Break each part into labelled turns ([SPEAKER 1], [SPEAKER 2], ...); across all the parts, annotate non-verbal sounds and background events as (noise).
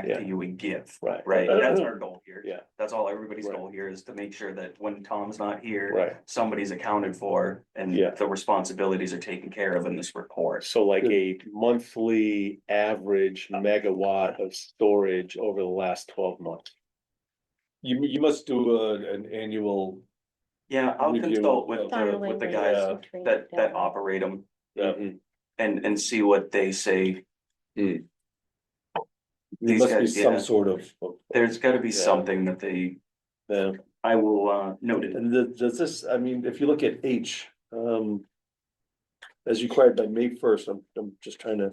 [SPEAKER 1] back
[SPEAKER 2] Yeah.
[SPEAKER 1] to you and give,
[SPEAKER 2] Right.
[SPEAKER 1] right?
[SPEAKER 2] Uh,
[SPEAKER 1] That's our goal here.
[SPEAKER 2] Yeah.
[SPEAKER 1] That's all everybody's
[SPEAKER 2] Right.
[SPEAKER 1] goal here is to make sure that when Tom's not here,
[SPEAKER 2] Right,
[SPEAKER 1] somebody's accounted for and
[SPEAKER 2] Yeah.
[SPEAKER 1] the responsibilities are taken care of in this report.
[SPEAKER 2] so like a monthly average
[SPEAKER 1] Uh.
[SPEAKER 2] megawatt of storage over the last twelve months.
[SPEAKER 3] You, you must do a, an annual,
[SPEAKER 1] Yeah, I'll
[SPEAKER 3] Review
[SPEAKER 1] consult with
[SPEAKER 3] of-
[SPEAKER 1] the, with the guys that, that operate them
[SPEAKER 3] uh,
[SPEAKER 2] Yeah.
[SPEAKER 1] and, and see what they say.
[SPEAKER 2] Hmm.
[SPEAKER 3] there
[SPEAKER 1] These
[SPEAKER 3] must be
[SPEAKER 1] guys, yeah.
[SPEAKER 3] some sort of. of-
[SPEAKER 1] There's gotta be
[SPEAKER 2] Yeah.
[SPEAKER 1] something that they,
[SPEAKER 3] Yeah.
[SPEAKER 1] I will, uh, note it.
[SPEAKER 3] And the, does this, I mean, if you look at H, um. As required by May first, I'm, I'm just trying to.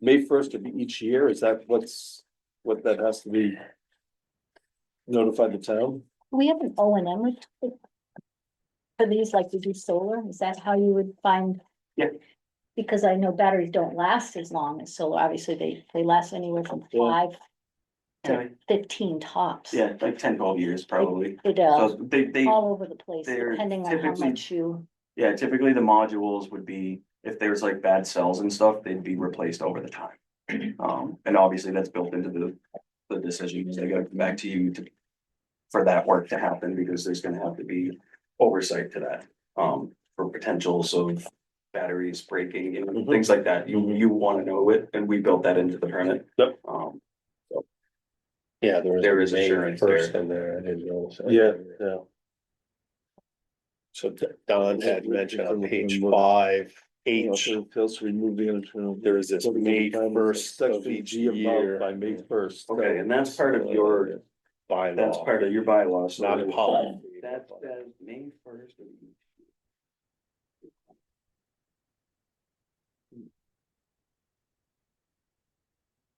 [SPEAKER 3] May first of each year, is that what's, what that has to be? Notify the town?
[SPEAKER 4] We have an O and M with- for these, like you do solar, is that how you would find?
[SPEAKER 1] Yeah.
[SPEAKER 4] Because I know batteries don't last as long as solar, obviously they, they last anywhere from
[SPEAKER 3] Yeah.
[SPEAKER 4] five,
[SPEAKER 1] Yeah,
[SPEAKER 4] fifteen tops.
[SPEAKER 1] Yeah, like 10, 12 years probably.
[SPEAKER 4] It,
[SPEAKER 1] So
[SPEAKER 4] uh,
[SPEAKER 1] they, they.
[SPEAKER 4] all over the place,
[SPEAKER 1] they're
[SPEAKER 4] depending on how
[SPEAKER 1] typically-
[SPEAKER 4] much you,
[SPEAKER 1] Yeah, typically the modules would be, if there's like bad cells and stuff, they'd be replaced over the time. Um, and obviously that's built into the, the decision, because they gotta come back to you to. For that work to happen, because there's gonna have to be oversight to that, um, for potentials of batteries breaking, you know,
[SPEAKER 3] Mhm.
[SPEAKER 1] things like that. You, you wanna know it, and we built that into the permit.
[SPEAKER 3] Yep.
[SPEAKER 1] Um,
[SPEAKER 2] Yeah,
[SPEAKER 1] There is May assurance there. first
[SPEAKER 2] in there, I didn't know.
[SPEAKER 3] Yeah, yeah.
[SPEAKER 2] So Don had mentioned on page five, H,
[SPEAKER 3] Also, Fails to remove the. internal-
[SPEAKER 2] there is this May first of
[SPEAKER 3] Section
[SPEAKER 2] each
[SPEAKER 3] G above by
[SPEAKER 2] year
[SPEAKER 3] May first.
[SPEAKER 1] okay, and that's part of your, that's
[SPEAKER 2] bylaw,
[SPEAKER 1] part of your bylaws.
[SPEAKER 2] not policy.
[SPEAKER 1] That says May first of each.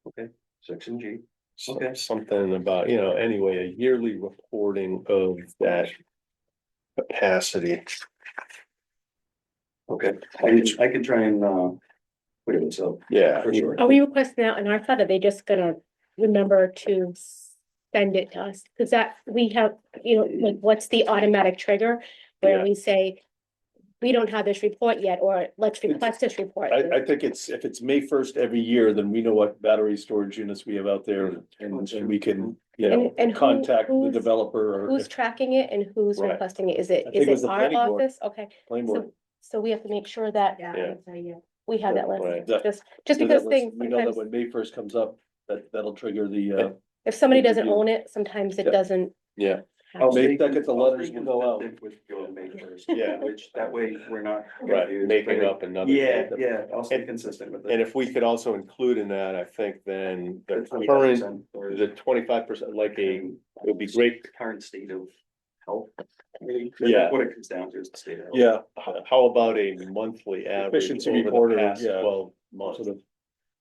[SPEAKER 1] Okay, section G.
[SPEAKER 2] So-
[SPEAKER 1] Okay.
[SPEAKER 2] Something about, you know, anyway, a yearly reporting of that capacity.
[SPEAKER 1] Okay, I could, I could try and, uh, put it so,
[SPEAKER 2] Yeah.
[SPEAKER 1] for sure.
[SPEAKER 5] Are we requesting that in our thought, are they just gonna remember to send it to us? Cause that, we have, you know, like, what's the automatic trigger?
[SPEAKER 2] Yeah.
[SPEAKER 5] Where we say, we don't have this report yet, or let's request this report.
[SPEAKER 3] I, I think it's, if it's May first every year, then we know what battery storage units we have out
[SPEAKER 1] Mm.
[SPEAKER 3] there and, and we can, you know,
[SPEAKER 5] And- and who-
[SPEAKER 3] contact the
[SPEAKER 5] who's-
[SPEAKER 3] developer or.
[SPEAKER 5] Who's
[SPEAKER 3] if
[SPEAKER 5] tracking it and who's
[SPEAKER 2] Right.
[SPEAKER 5] requesting it? Is
[SPEAKER 3] I
[SPEAKER 5] it,
[SPEAKER 3] think
[SPEAKER 5] is
[SPEAKER 3] it was
[SPEAKER 5] it
[SPEAKER 3] the
[SPEAKER 5] our
[SPEAKER 3] planning board.
[SPEAKER 5] office? Okay,
[SPEAKER 3] planning board-
[SPEAKER 5] so, so we have to make sure that
[SPEAKER 2] Yeah.
[SPEAKER 5] we have that
[SPEAKER 2] Right.
[SPEAKER 5] list,
[SPEAKER 3] That-
[SPEAKER 5] just, just
[SPEAKER 3] so that
[SPEAKER 5] because
[SPEAKER 3] was-
[SPEAKER 5] things,
[SPEAKER 3] We know that
[SPEAKER 5] sometimes,
[SPEAKER 3] when May first comes up, that, that'll trigger the, uh,
[SPEAKER 5] if somebody
[SPEAKER 3] we
[SPEAKER 5] doesn't
[SPEAKER 3] do.
[SPEAKER 5] own it, sometimes
[SPEAKER 3] Yeah.
[SPEAKER 5] it doesn't.
[SPEAKER 2] Yeah.
[SPEAKER 1] I'll
[SPEAKER 3] Maybe
[SPEAKER 1] stay
[SPEAKER 3] that gets the
[SPEAKER 1] cons- I'll
[SPEAKER 3] letters
[SPEAKER 1] stay
[SPEAKER 3] will go out.
[SPEAKER 1] consistent With your May first. (laughs)
[SPEAKER 2] Yeah.
[SPEAKER 1] Which, that way, we're not.
[SPEAKER 2] Right,
[SPEAKER 1] confused.
[SPEAKER 2] making up another.
[SPEAKER 1] Yeah, yeah, I'll stay
[SPEAKER 2] And-
[SPEAKER 1] consistent with it.
[SPEAKER 2] And if we could also include in that, I think then the
[SPEAKER 1] The
[SPEAKER 2] current,
[SPEAKER 1] 25% or
[SPEAKER 2] the twenty-five percent, like a, it
[SPEAKER 1] the
[SPEAKER 2] would be great,
[SPEAKER 1] Current state of health. I mean,
[SPEAKER 2] Yeah.
[SPEAKER 1] What it comes down to is the state of health.
[SPEAKER 3] yeah,
[SPEAKER 2] h- how about a monthly average
[SPEAKER 3] Efficiency
[SPEAKER 2] over
[SPEAKER 3] report
[SPEAKER 2] the
[SPEAKER 3] or-
[SPEAKER 2] past
[SPEAKER 3] yeah.
[SPEAKER 2] twelve
[SPEAKER 3] sort
[SPEAKER 2] months?
[SPEAKER 3] of,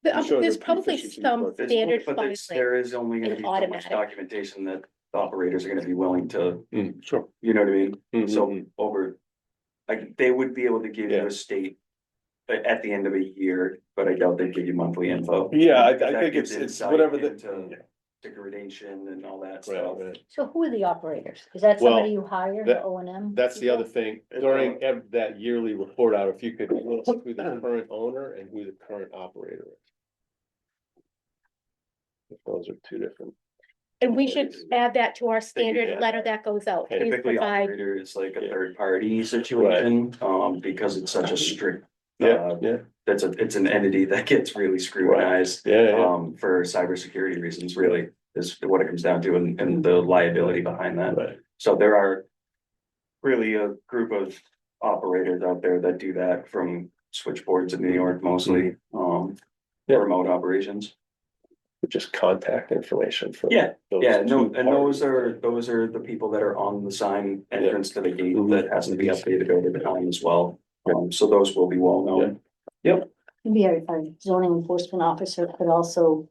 [SPEAKER 5] But,
[SPEAKER 3] I'm
[SPEAKER 5] um,
[SPEAKER 3] sure
[SPEAKER 5] There's
[SPEAKER 3] there's
[SPEAKER 5] probably
[SPEAKER 3] efficiency
[SPEAKER 5] some
[SPEAKER 3] reports.
[SPEAKER 1] There's-
[SPEAKER 5] standard
[SPEAKER 1] But
[SPEAKER 5] filing.
[SPEAKER 1] there's- there is only gonna
[SPEAKER 5] and
[SPEAKER 1] be so much
[SPEAKER 5] automatic.
[SPEAKER 1] documentation that the operators are gonna be willing to,
[SPEAKER 2] Mm, sure.
[SPEAKER 1] you know what I mean?
[SPEAKER 3] Mm-hmm,
[SPEAKER 2] So,
[SPEAKER 1] So over, like, they would be able to give you
[SPEAKER 2] Yeah.
[SPEAKER 1] a state a- at the end of a year, but I doubt they'd give you monthly info.
[SPEAKER 3] yeah, I,
[SPEAKER 1] That
[SPEAKER 3] I think
[SPEAKER 1] gives
[SPEAKER 3] it's, it's
[SPEAKER 1] insight
[SPEAKER 3] whatever the.
[SPEAKER 1] into Degradation and all that
[SPEAKER 2] right,
[SPEAKER 1] stuff.
[SPEAKER 2] right.
[SPEAKER 4] so who are the operators? Is that
[SPEAKER 2] Well,
[SPEAKER 4] somebody you
[SPEAKER 2] that-
[SPEAKER 4] hire, the O and M?
[SPEAKER 2] That's the
[SPEAKER 4] people?
[SPEAKER 2] other thing, during ev- that yearly report out, if you could list who the current owner and who the current operator is. If Those are two different.
[SPEAKER 5] And we should add that to our
[SPEAKER 2] yeah.
[SPEAKER 5] standard letter that goes out.
[SPEAKER 2] Yeah,
[SPEAKER 5] Please
[SPEAKER 1] Typically
[SPEAKER 5] provide
[SPEAKER 1] operator is like a third party situation, um, because it's such a strict. uh,
[SPEAKER 2] yeah.
[SPEAKER 1] That's a, it's an entity that gets really scrutinized.
[SPEAKER 2] Yeah, yeah, yeah,
[SPEAKER 1] um, for cybersecurity reasons, really, is what it comes down to and, and the liability behind that.
[SPEAKER 2] right.
[SPEAKER 1] So there are really a group of operators out there that do that from switchboards in New York mostly, um,
[SPEAKER 2] Mm-hmm. Yeah.
[SPEAKER 1] remote operations.
[SPEAKER 2] Just contact information for.
[SPEAKER 1] Yeah,
[SPEAKER 2] those
[SPEAKER 1] Yeah, no,
[SPEAKER 2] two
[SPEAKER 1] and those
[SPEAKER 2] parties.
[SPEAKER 1] are, those are the people that are on the sign entrance to the gate
[SPEAKER 2] Mm-hmm.
[SPEAKER 1] that has to be updated over the time as well. Um, so those will be well known.
[SPEAKER 4] Maybe our our zoning enforcement officer could also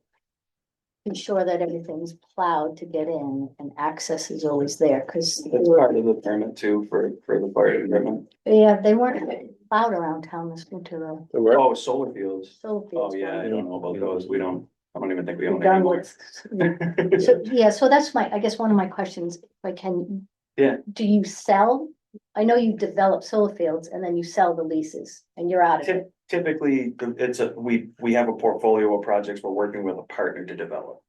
[SPEAKER 4] ensure that everything's plowed to get in and access is always there, because they
[SPEAKER 1] That's
[SPEAKER 4] were,
[SPEAKER 1] part of the permit too for, for the fire department.
[SPEAKER 4] yeah, they weren't plowed around town this winter, though.
[SPEAKER 3] the where-
[SPEAKER 1] Oh, solar fields.
[SPEAKER 4] So
[SPEAKER 1] Oh, yeah, I don't know about those. We don't, I don't even think we own (laughs)
[SPEAKER 4] Done
[SPEAKER 1] anymore. (laughs)
[SPEAKER 4] with, so, yeah, so that's my, I guess one of my questions, if I can.
[SPEAKER 1] Yeah.
[SPEAKER 4] Do you sell? I know you develop solar fields and then you sell the leases and you're out of it.
[SPEAKER 1] typically, the- it's a, we, we have a portfolio of projects we're working with a partner to develop.